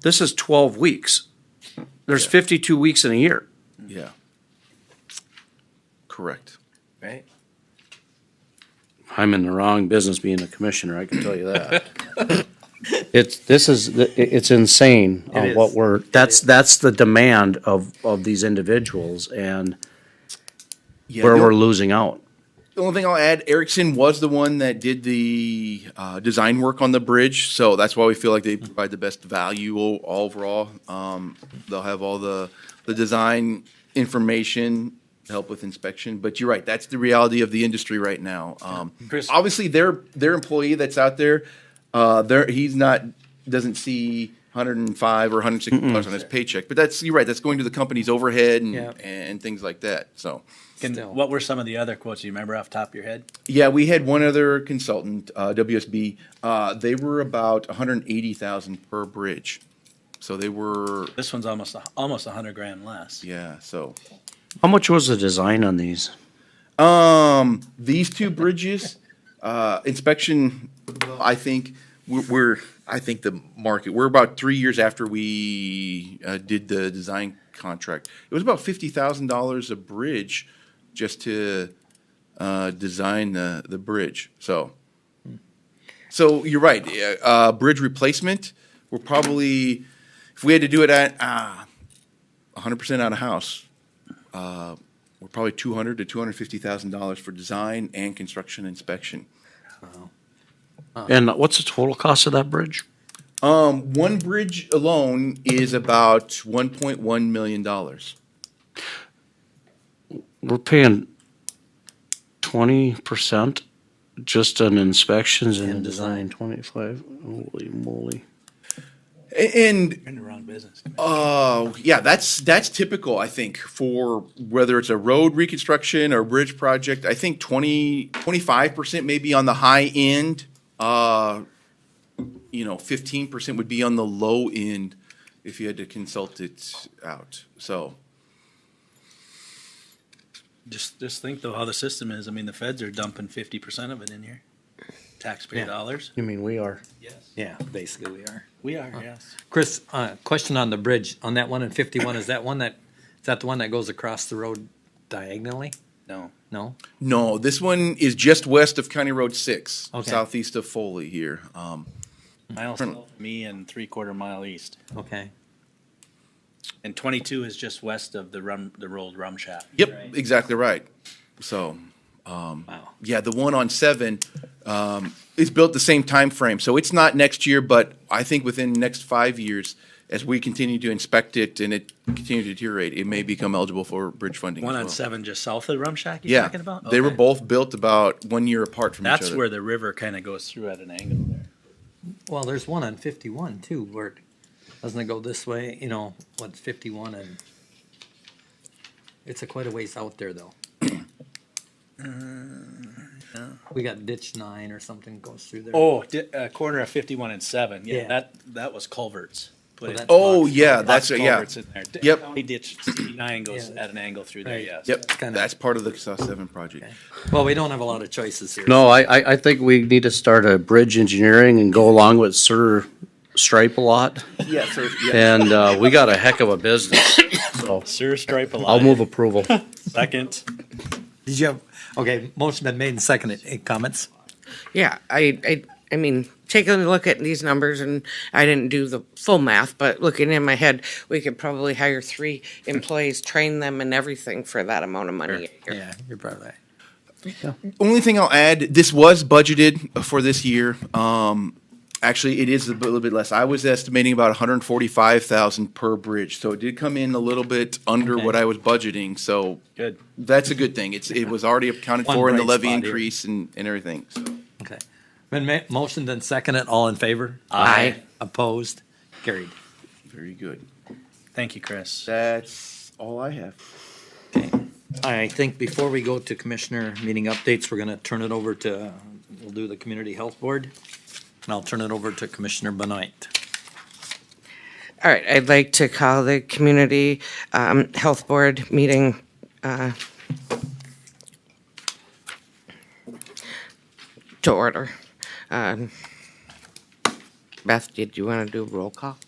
This is twelve weeks. There's fifty-two weeks in a year. Yeah. Correct. Right. I'm in the wrong business being a commissioner, I can tell you that. It's, this is, it- it's insane on is. what we're, that's, that's the demand of, of these individuals and Yeah, where the- we're losing out. The only thing I'll add, Erickson was the one that did the uh, design work on the bridge, so that's why we feel like they Hmm. provide the best value o- overall. Um, they'll have all the the design information to help with inspection. But you're right, that's the reality of the industry right now. Um, Chris- obviously, their their employee that's out there, uh, there he's not doesn't see. 105 or 160 dollars on his paycheck, but that's you're right. That's going to the company's overhead and, Yeah. and things like that. So, Can, Still. what were some of the other quotes? Do you remember off the top of your head? Yeah, we had one other consultant, uh, WSB. Uh, they were about 180,000 per bridge. So they were, This one's almost a- almost a hundred grand less. yeah, so. How much was the design on these? Um, these two bridges, uh, inspection, I think we're, we're, I think the market, we're about three years after we, uh, did the design contract. It was about $50,000 a bridge just to, uh, design the, the bridge. So, so you're right. Uh, uh, bridge replacement, we're probably, if we had to do it at, uh, 100% out of house, we're probably two hundred to two hundred fifty thousand dollars for design and construction inspection. And what's the total cost of that bridge? Um, one bridge alone is about one point one million dollars. We're paying twenty percent just on inspections and design, twenty-five, holy moly. And You're in the wrong business. uh, yeah, that's that's typical. I think for whether it's a road reconstruction or bridge project, I think 25 percent maybe on the high end. Uh, you know, fifteen percent would be on the low end if you had to consult it out. So. Just just think though how the system is. I mean, the feds are dumping fifty percent of it in here, taxpayer Yeah. dollars. You mean we are? Yes, Yeah, basically we are. we are. Yes. Chris, uh, question on the bridge, on that one in fifty-one, is that one that, is that the one that goes across the road diagonally? No. No? No, this one is just west of County Road Six, Okay. southeast of Foley here. Um, Mile south, me and three quarter mile east, Okay. and twenty two is just west of the rum the rolled rum shop. yep, right? exactly right. So, Wow. yeah, the one on seven um, is built the same time frame, so it's not next year, but I think within the next five years, as we continue to inspect it and it continue to deteriorate, it may become eligible for bridge funding. One as on well. seven, just south of the rum shack. You're Yeah, talking about? they were Okay. both built about one year apart from each That's other. where the river kind of goes through at an angle there. Well, there's one on fifty-one too, where, it- doesn't it go this way, you know, what's fifty-one and? It's a quite a ways out there though. We got ditch nine or something goes through there. Oh, di- uh, corner of fifty-one and seven. Yeah, Yeah. that that was culverts. Put Well, in- that's Oh Box yeah, lots that's of it, yeah. culverts in there. D- Yep. County ditch nine goes Yeah. at an angle through there. Right. Yes. Yep, kinda- that's part of the South Seven project. Well, we don't have a lot of choices here. No, I, I, I think we need to start a bridge engineering and go along with Sir Stripe a lot. Yeah, so yeah. And, uh, we got a heck of a business. So Sir Stripe a I'll move approval. second. Did you have, okay, motion been made and seconded, Any comments? Yeah, I, I, I mean, taking a look at these numbers, and I didn't do the full math, but looking in my head, we could probably hire three employees, train them and everything for that amount of money. a year. Yeah, you're probably right. only thing I'll add, this was budgeted for this year. Um, actually, it is a bit- little bit less. I was estimating about 145,000 per bridge, so it did come in a little bit under Okay. what I was budgeting. So Good. that's a good thing. It's it was already accounted One for in the bright levy spot here. increase and, and everything. So. Okay. Been ma- motioned and seconded, all in favor? Aye. Opposed? Carried. Very good. Thank you, Chris. That's all I have. I think before we go to commissioner meeting updates, we're gonna turn it over to, we'll do the community health board. And I'll turn it over to Commissioner Benoit. All right, I'd like to call the community, um, health board meeting, uh, to order. Um, Beth, did you want to do roll call?